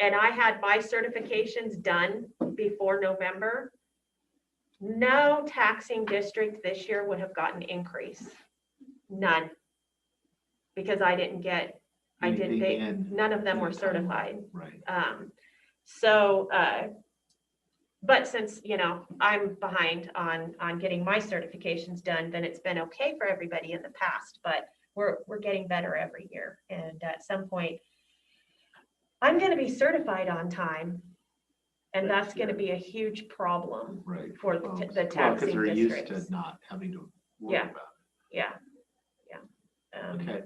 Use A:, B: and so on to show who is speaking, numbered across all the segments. A: and I had my certifications done before November, no taxing district this year would have gotten increase. None. Because I didn't get, I
B: They-
A: didn't,
B: they
A: they,
B: did.
A: none of them were
B: Yeah.
A: certified.
B: Right.
A: Um, so, uh, but since, you know, I'm behind on, on getting my certifications done, then it's been okay for everybody in the past, but we're, we're getting better every year. And at some point, I'm gonna be certified on time. And
B: Next
A: that's gonna
B: year.
A: be a huge problem
B: Right.
A: for the
B: Well,
A: t-
B: well,
A: the
B: Oh, 'cause
A: taxing
B: they're used to
A: districts.
B: Not having to worry
A: Yeah.
B: about it.
A: Yeah, yeah. Um,
B: Okay.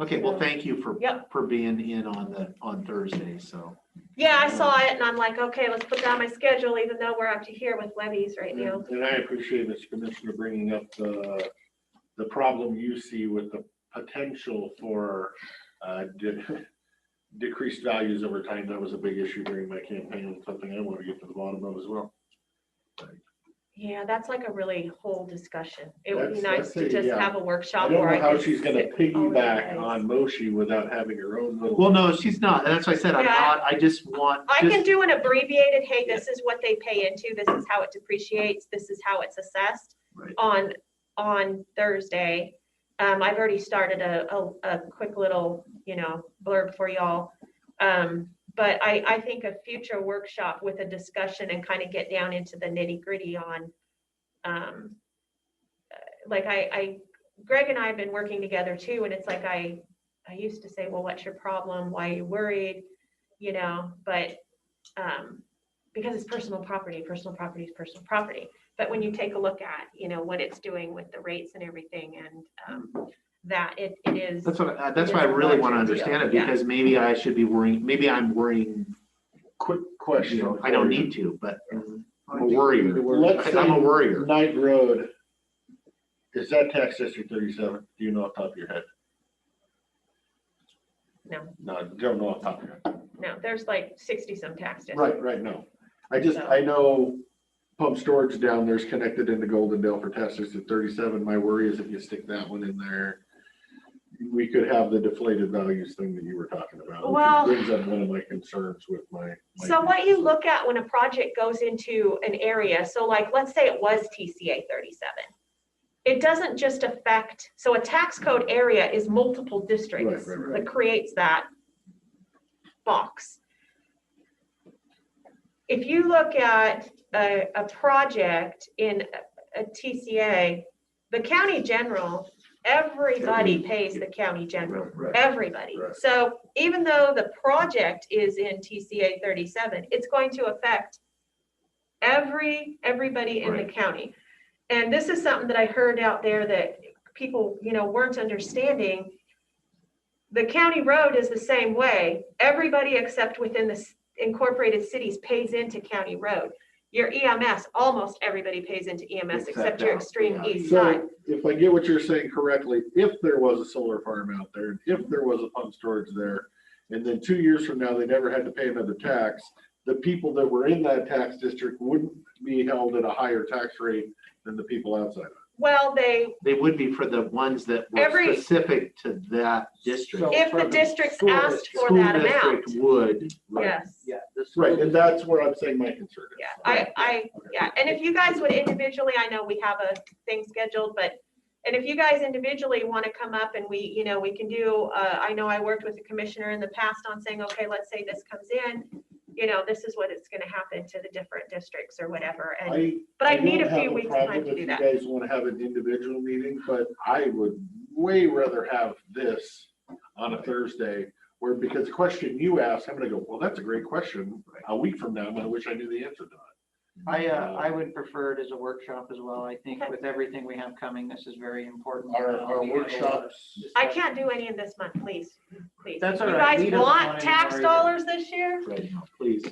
B: Okay, well,
A: So-
B: thank you for,
A: Yep.
B: for being in on the, on Thursday, so.
A: Yeah, I saw it and I'm like, okay, let's put down my schedule, even though we're up to here with levies right now.
C: And and I appreciate this commissioner bringing up the, the problem you see with the potential for uh, de- decreased values over time. That was a big issue during my campaign and something I want to get to the bottom of as well.
A: Yeah, that's like a really whole discussion. It would be
C: That's-
A: nice to
C: that's a-
A: just
C: yeah.
A: have a
C: I
A: workshop.
C: don't
A: where
C: know how
A: can
C: she's gonna
A: sit with all of you
C: piggyback
A: guys.
C: on Moshi without having her own little.
B: Well, no, she's not. That's why I said I'm
A: Yeah.
B: not. I just want,
A: I can
B: just,
A: do an abbreviated, hey, this is what they pay into, this is how it depreciates, this is how it's assessed
B: Right.
A: on, on Thursday. Um, I've already started a, a, a quick little, you know, blurb for y'all. Um, but I, I think a future workshop with a discussion and kind of get down into the nitty gritty on, um, uh, like I, I, Greg and I have been working together too, and it's like I, I used to say, well, what's your problem? Why are you worried? You know, but um, because it's personal property, personal property is personal property. But when you take a look at, you know, what it's doing with the rates and everything and, um, that it, it is,
B: that's what, I- that's
A: It
B: why I
A: is a
B: really want to
A: larger
B: understand
A: deal,
B: it
A: yeah.
B: because maybe I should be worrying, maybe I'm worrying,
C: Quick
B: you
C: question.
B: know, I don't need to, but I'm a worrier.
C: Let's
B: I'm a
C: say
B: worrier.
C: Knight Road. Is that tax district thirty-seven? Do you know off the top of your head?
A: No.
C: No, don't know off the top of your head.
A: no, there's like sixty some tax districts.
C: Right, right, no. I just, I know pump storage down there is connected into Golden Dale for testers at thirty-seven. My worry is if you stick that one in there, we could have the deflated values thing that you were talking about. which
A: Well-
C: Brings up one of my concerns with my. my-
A: So what you look at when a project goes into an area, so like, let's say it was TCA thirty-seven. It doesn't just affect, so a tax code area is multiple districts
C: Right, right,
A: that creates that box. If you look at a, a project in a- a TCA, the county general, everybody pays the county general
C: Right, right.
A: everybody.
C: Right.
A: So even though the project is in TCA thirty-seven, it's going to affect every, everybody in the
B: Right.
A: county. And this is something that I heard out there that people, you know, weren't understanding. The county road is the same way. Everybody except within the s- incorporated cities pays into county road. Your EMS, almost everybody pays into EMS except
B: Except
A: your
B: out,
A: extreme
B: yeah.
A: east side.
C: So if I get what you're saying correctly, if there was a solar farm out there, and if there was a pump storage there, and then two years from now, they never had to pay another tax, the people that were in that tax district wouldn't be held at a higher tax rate than the people outside. of it.
A: Well, they
B: They would be for the ones that were
A: Every-
B: specific to that district.
D: So-
A: If
D: for
A: the
D: the
A: districts
D: school
A: asked
D: district.
A: for
B: School
A: that
B: district
A: amount,
B: Would,
A: yes.
D: Yeah. the school
C: Right, and
D: district.
C: that's where I'm saying my concern is.
A: Yeah, I, I,
C: Okay.
A: yeah, and if you guys would individually, I know we have a thing scheduled, but, and if you guys individually want to come up and we, you know, we can do, uh, I know I worked with the commissioner in the past on saying, okay, let's say this comes in, you know, this is what it's going to happen to the different districts or whatever, and,
C: I.
A: but I
C: don't
A: need a
C: have
A: few weeks
C: problem
A: time to
C: if
A: do
C: you
A: that.
C: Guys want to have an individual meeting, but I would way rather have this on a Thursday. Where because the question you asked, I'm gonna go, well, that's a great question. A week from now, I wish I knew the answer to it.
D: I, uh, I would prefer it as a workshop as well. I think
A: Okay.
D: with everything we have coming, this is very important.
C: Our,
D: Uh,
C: our
D: we have a lot of
C: workshops,
A: I
D: discussion.
A: can't do any in this month, please, please.
D: That's all
A: You
D: right.
A: guys
D: We don't
A: want
D: want any
A: tax
D: more either.
A: dollars this year?
B: right now, please.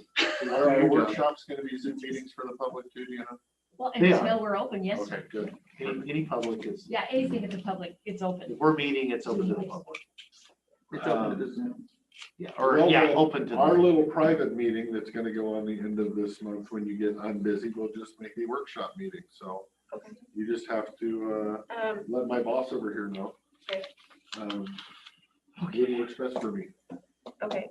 C: are our workshops gonna be Zoom meetings for the public too, do you know?
E: Well,
B: They are.
E: until we're open, yes.
C: Okay, good.
B: Any, any public is,
E: Yeah, anything that's a public, it's open.
B: if we're meeting, it's open to the public.
D: It's open
C: Um,
D: to the Zoom.
B: Yeah, or,
C: Well,
B: yeah,
C: the-
B: open to
C: Our
B: the,
C: little private meeting that's gonna go on the end of this month, when you get unbusy, we'll just make a workshop meeting, so.
A: Okay.
C: You just have to, uh,
A: Um,
C: let my boss over here know.
A: Okay.
C: Um, What works best for me.
A: okay,